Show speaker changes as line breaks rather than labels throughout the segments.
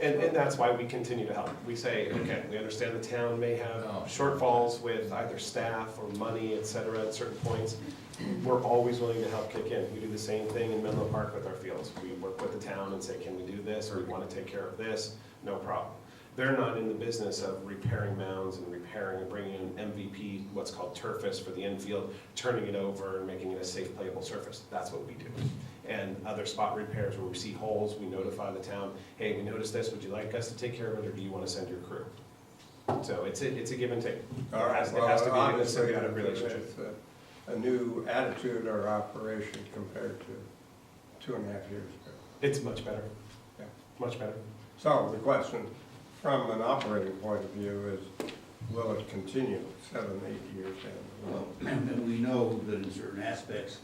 And, and that's why we continue to help. We say, okay, we understand the town may have
No.
shortfalls with either staff or money, et cetera, at certain points. We're always willing to help kick in. We do the same thing in Menlo Park with our fields. We work with the town and say, can we do this, or we wanna take care of this, no problem. They're not in the business of repairing mounds and repairing and bringing in MVP, what's called turfus for the infield, turning it over and making it a safe playable surface. That's what we do. And other spot repairs where we see holes, we notify the town, hey, we noticed this, would you like us to take care of it, or do you wanna send your crew? So it's a, it's a give and take.
All
It
right,
has- It
well,
has to be in a
obviously,
symbiotic relationship.
it's a- a new attitude or operation compared to two and a half years ago.
It's much better,
Yeah.
much better.
So the question, from an operating point of view, is will it continue seven, eight years down the
Well,
road?
And we know that in certain aspects,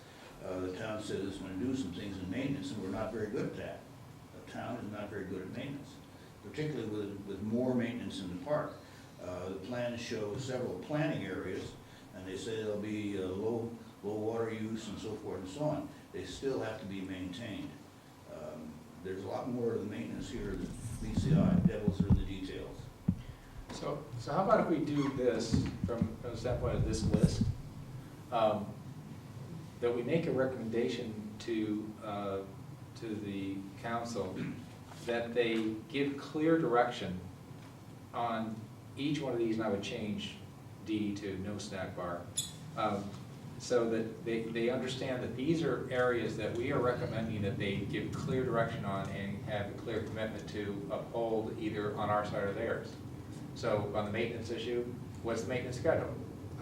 uh, the town says it's gonna do some things in maintenance, and we're not very good at that. The town is not very good at maintenance, particularly with, with more maintenance in the park. Uh, The plans show several planning areas, and they say there'll be uh, low, low water use and so forth and so on. They still have to be maintained. Um, There's a lot more to the maintenance here than meets the eye, devils are the details.
So, so how about if we do this from, from the standpoint of this list? um, That we make a recommendation to, uh, to the council that they give clear direction on each one of these, and I would change D to no snack bar. um, So that they, they understand that these are areas that we are recommending that they give clear direction on and have a clear commitment to uphold either on our side or theirs. So on the maintenance issue, what's the maintenance schedule?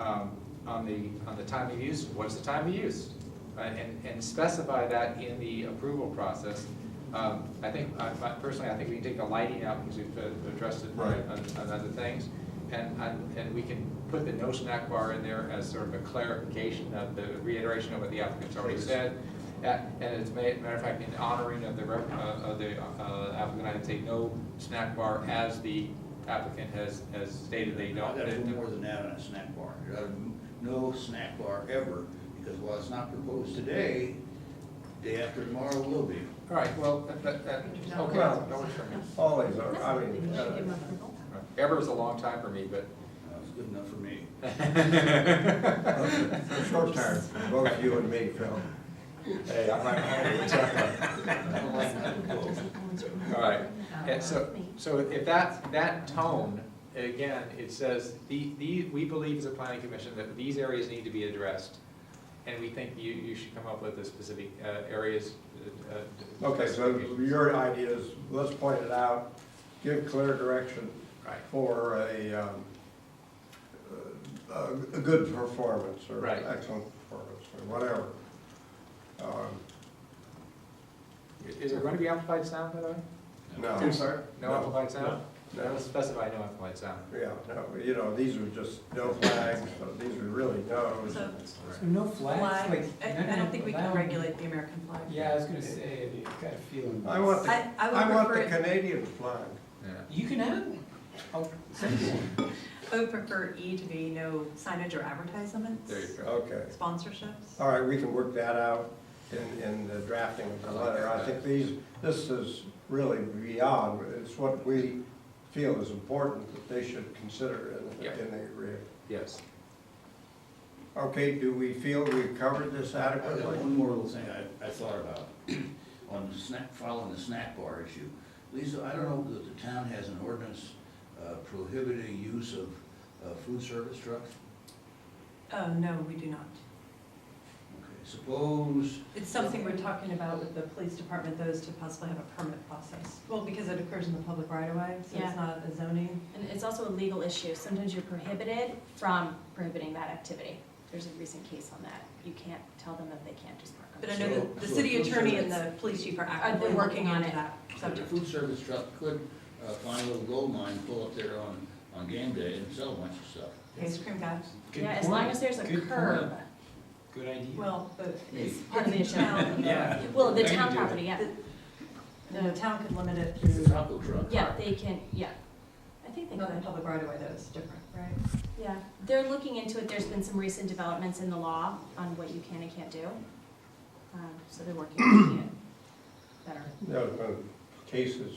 Um, On the, on the time of use, what's the time of use? Uh, And, and specify that in the approval process. Um, I think, I- I- personally, I think we can take the lighting out because we've uh, addressed it on,
Right.
on other things. And, and and we can put the no snack bar in there as sort of a clarification of the reiteration of what the applicant's already
Please.
said. Uh, And as a ma- matter of fact, in honoring of the, rep- uh, of the uh, applicant, I'd say no snack bar as the applicant has, has stated they
I
don't.
gotta do more than that on a snack bar. You gotta- No snack bar ever, because while it's not proposed today, day after tomorrow will be.
All right, well, that, that, that- okay,
Well-
that works for me.
All these are, I mean, uh,
Ever was a long time for me, but.
Uh, It's good enough for me.
for a short term, both you and me, Phil. Hey, I might hold it
I don't like that proposal.
All right, yeah, so, so if that, that tone, again, it says, the, the, we believe as a planning commission that these areas need to be addressed. And we think you, you should come up with the specific, uh, areas, uh. uh,
Okay, so
specifications.
your idea is, let's point it out, give clear direction
Right,
for a, um, a a good performance or
Right.
excellent performance or whatever. Um,
I- is there going to be amplified sound, by the way?
No.
I'm sorry?
No
No.
amplified sound?
No.
Let's specify no amplified sound.
Yeah, no, you know, these are just no flags, so these are really no's.
So
Right.
No
flag,
flags, like.
I, I don't think we can regulate the American flag.
Yeah, I was gonna say, you got a feeling.
I want the,
I, I
I
would
want the
prefer,
Canadian flag.
Yeah.
You can have one. I'll send you one.
I would prefer E to be no signage or advertisements.
There you go.
Okay.
Sponsorships.
All right, we can work that out in, in the drafting of the letter. I think these, this is really beyond, it's what we feel is important that they should consider in,
Yeah.
in the agreement.
Yes.
Okay, do we feel we've covered this
I got
adequately?
one more little thing I, I thought about on the snack, following the snack bar issue. Lisa, I don't know that the town has an ordinance uh, prohibiting use of uh, food service trucks.
Oh, no, we do not.
Okay, Suppose
It's something we're talking about with the police department, those to possibly have a permit process. Well, because it occurs in the public right of way, so
Yeah.
it's not a zoning.
And it's also a legal issue. Sometimes you're prohibited from prohibiting that activity. There's a recent case on that. You can't tell them that they can't just park on the
But I
street.
know that the city attorney and the police chief are actively
Are they
working
working on
into
it?
that
So the
subject.
food service truck could uh, find a little gold mine, pull up there on, on game day and sell a bunch of stuff.
Ice cream guy.
Good
Yeah, as long
point.
as there's a
Good
curb.
point. Good idea.
Well, but it's
Hey.
part of the town.
Yeah.
Well, the
They can
town
do it.
property, yeah.
The town could limit it
It's a
through,
taco truck.
Yeah, they can, yeah. I think they
not the
could.
public right of way, though, it's different, right?
Yeah, they're looking into it. There's been some recent developments in the law on what you can and can't do. Um, So they're working on it better.
There have been cases